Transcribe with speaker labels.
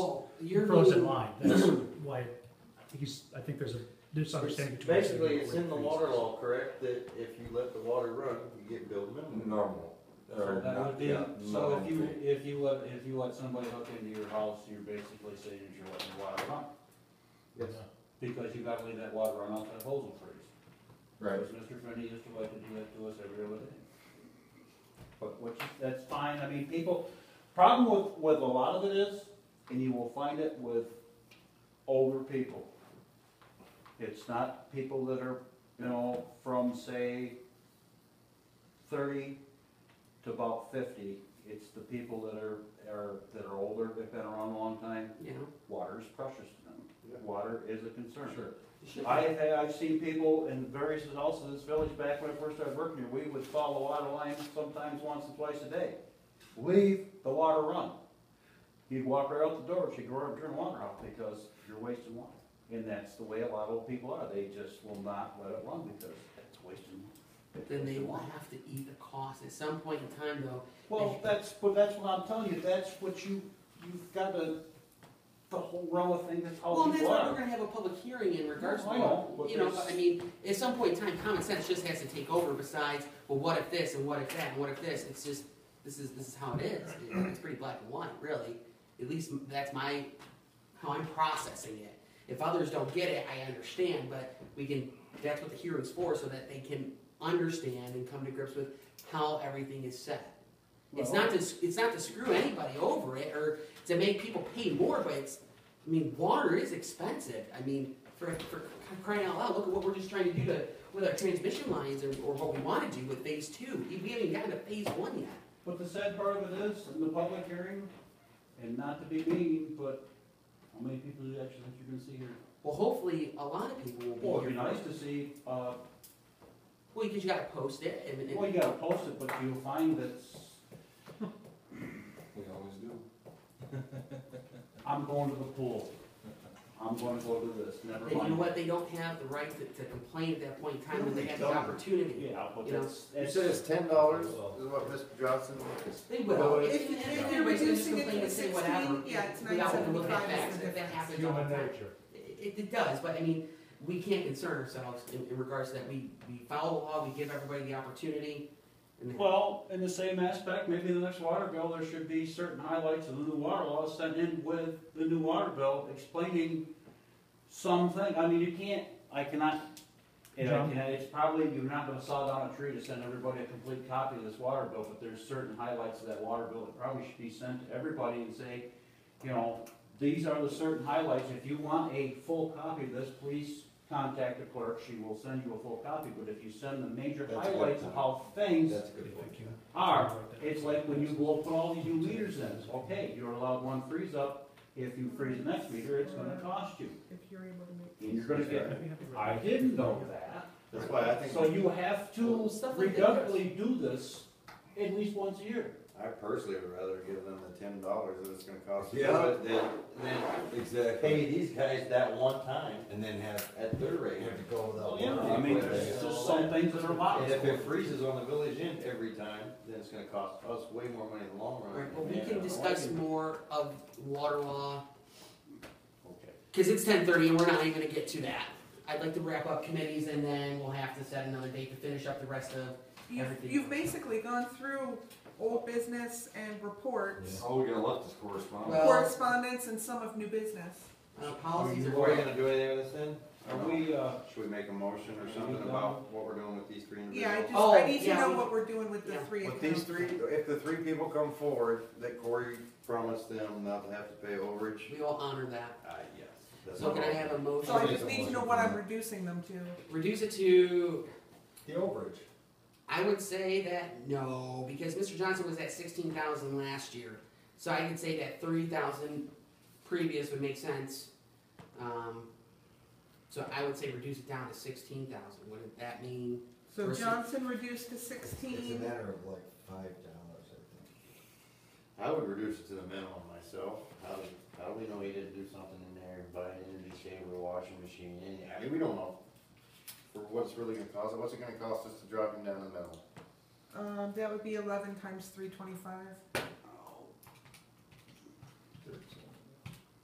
Speaker 1: Your
Speaker 2: frozen
Speaker 1: meeting-
Speaker 2: line, that's why, I think he's, I think there's a misunderstanding between. us.
Speaker 3: Basically, it's in the water law, correct, that if you let the water run, you get billed minimum.
Speaker 4: normal. or
Speaker 5: That
Speaker 4: not-
Speaker 5: would be,
Speaker 4: yeah,
Speaker 5: so if you,
Speaker 4: normal.
Speaker 5: if you let, if you let somebody hook into your house, you're basically saying that you're letting the water run,
Speaker 3: Yes.
Speaker 5: because you gotta leave that water run off that hose will freeze.
Speaker 4: Right,
Speaker 5: Because Mr. Finney used to like to do that to us every other day. But which, is- that's fine, I mean, people, problem with, with a lot of it is, and you will find it with older people. It's not people that are, you know, from say thirty to about fifty. It's the people that are, are, that are older, they've been around a long time,
Speaker 1: You know,
Speaker 5: water is precious to them.
Speaker 3: Yeah.
Speaker 5: Water is a concern.
Speaker 3: Sure.
Speaker 5: I, I- I've seen people in various, also this village, back when I first started working here, we would follow water lines sometimes once or twice a day. Leave the water run. You'd walk right out the door, she'd go over and turn the water off because you're wasting water. And that's the way a lot of old people are, they just will not let it run because it's wasting. it's
Speaker 1: then they
Speaker 5: wasting
Speaker 1: will
Speaker 5: water.
Speaker 1: have to eat the cost at some point in time though.
Speaker 5: Well, that's, but that's what I'm telling you, that's what you, you've got to, the whole row of things, that's
Speaker 1: Well,
Speaker 5: how
Speaker 1: and that's
Speaker 5: people
Speaker 1: why we're
Speaker 5: Oh, are.
Speaker 1: gonna have a public hearing in regards to,
Speaker 5: I know, but
Speaker 1: you know,
Speaker 5: there's-
Speaker 1: I mean, at some point in time, common sense just has to take over besides, well, what if this and what if that and what if this? It's just, this is, this is how it is. You know, It's pretty black and white, really. At least that's my, how I'm processing it. If others don't get it, I understand, but we can, that's what the hearing's for, so that they can understand and come to grips with how everything is set. It's
Speaker 5: Well-
Speaker 1: not to, it's not to screw anybody over it or to make people pay more, but it's, I mean, water is expensive. I mean, for, for crying out loud, look at what we're just trying to do to, with our transmission lines or, or what we wanna do with phase two. We haven't even gotten to phase one yet.
Speaker 5: But the sad part of it is, in the public hearing, and not to be mean, but how many people do you actually think you're gonna see here?
Speaker 1: Well, hopefully, a lot of people
Speaker 5: Well,
Speaker 1: will be
Speaker 5: it'd be
Speaker 1: here.
Speaker 5: nice to see, uh,
Speaker 1: Well, because you gotta post it and,
Speaker 5: well,
Speaker 1: and,
Speaker 5: you gotta post it, but you'll find that, s-
Speaker 4: we always do.
Speaker 5: I'm going to the pool, I'm gonna go to this, never
Speaker 1: and you know
Speaker 5: mind.
Speaker 1: what, they don't have the right to, to complain at that point in time when they
Speaker 5: They
Speaker 1: have the
Speaker 5: don't.
Speaker 1: opportunity.
Speaker 5: Yeah, but
Speaker 1: You know,
Speaker 5: that's,
Speaker 4: You
Speaker 5: that's,
Speaker 4: said it's ten dollars is what Mr. Johnson was.
Speaker 1: They
Speaker 4: Well,
Speaker 1: will.
Speaker 4: it's-
Speaker 1: If, if
Speaker 4: Yeah.
Speaker 1: they're reducing
Speaker 6: Reducing it
Speaker 1: it
Speaker 6: to
Speaker 1: to say whatever,
Speaker 6: 16, yeah, it's
Speaker 1: we all have to look at
Speaker 6: 9.75 is
Speaker 1: facts,
Speaker 6: the
Speaker 1: if that
Speaker 6: difference.
Speaker 1: happens all the time. It, it does, but I mean, we can't concern ourselves in, in regards to that. We, we follow the law, we give everybody the opportunity. And
Speaker 5: well, in the same aspect, maybe the next water bill, there should be certain highlights of the new water law sent in with the new water bill explaining something, I mean, you can't, I cannot And I
Speaker 2: John?
Speaker 5: can- it's probably, you're not gonna saw down a tree to send everybody a complete copy of this water bill, but there's certain highlights of that water bill that probably should be sent to everybody and say, you know, these are the certain highlights, if you want a full copy of this, please contact the clerk, she will send you a full copy, but if you send the major
Speaker 4: That's a good
Speaker 5: highlights of
Speaker 4: point.
Speaker 5: how things
Speaker 4: That's a good point.
Speaker 2: Thank you.
Speaker 5: are, it's like when you blow, put all these new meters in, okay, you're allowed one freeze up, if you freeze the next meter, it's gonna cost you,
Speaker 6: If you're able to make.
Speaker 5: and you're gonna get,
Speaker 2: We have to-
Speaker 5: I didn't know that.
Speaker 4: That's why I think.
Speaker 5: So you have
Speaker 1: Well,
Speaker 5: to
Speaker 1: stuff like that.
Speaker 5: regularly do this at least once a year.
Speaker 3: I personally would rather give them the ten dollars that it's gonna cost. to do
Speaker 4: Yeah.
Speaker 3: it Than, than
Speaker 4: Exactly.
Speaker 3: pay these guys that one time
Speaker 4: And then have,
Speaker 3: at their rate.
Speaker 4: you have to go without.
Speaker 5: I mean,
Speaker 4: water.
Speaker 5: there's just some things that are locked.
Speaker 3: And if it freezes on the village end every time, then it's gonna cost us way more money in the long run.
Speaker 1: Right, but we
Speaker 3: Yeah.
Speaker 1: can discuss more of water law,
Speaker 5: Okay.
Speaker 1: cause it's ten thirty and we're not even gonna get to that. I'd like to wrap up committees and then we'll have to set another date to finish up the rest of,
Speaker 6: You've,
Speaker 1: Everything.
Speaker 6: you've basically gone through old business and reports,
Speaker 1: Oh,
Speaker 4: All we got left is correspondence.
Speaker 1: Well-
Speaker 6: correspondence and some of new business.
Speaker 1: uh,
Speaker 3: Are
Speaker 1: policies
Speaker 3: you
Speaker 1: are.
Speaker 3: gonna do anything with this then?
Speaker 5: Are we, uh,
Speaker 3: Should we make a motion or something about what we're doing with these three
Speaker 6: Yeah, I
Speaker 3: individuals?
Speaker 6: just,
Speaker 1: Oh,
Speaker 6: I need to
Speaker 1: yeah,
Speaker 6: know
Speaker 1: we-
Speaker 6: what we're doing with the
Speaker 1: yeah.
Speaker 6: three
Speaker 3: With these
Speaker 6: accounts.
Speaker 3: three, if the three people come forward, that Corey promised them not to have to pay overage,
Speaker 1: We will honor that.
Speaker 3: uh, yes. that's
Speaker 1: So can I
Speaker 3: all.
Speaker 1: have a
Speaker 6: So I
Speaker 1: motion?
Speaker 6: just need to know what I'm reducing them to.
Speaker 1: Reduce it to
Speaker 4: The overage.
Speaker 1: I would say that no, because Mr. Johnson was at sixteen thousand last year, so I could say that three thousand previous would make sense. Um, so I would say reduce it down to sixteen thousand. Wouldn't that mean?
Speaker 6: So
Speaker 1: Versus-
Speaker 6: Johnson reduced to
Speaker 4: It's a
Speaker 6: sixteen,
Speaker 4: matter of like five dollars, I
Speaker 3: I would reduce it to the minimum myself. How do, how do we know he didn't do something in there, buy an energy saver, washing machine, any, I mean, we don't know. For what's really gonna cost, what's it gonna cost us to drop him down the middle?
Speaker 6: um, that would be eleven times three twenty-five.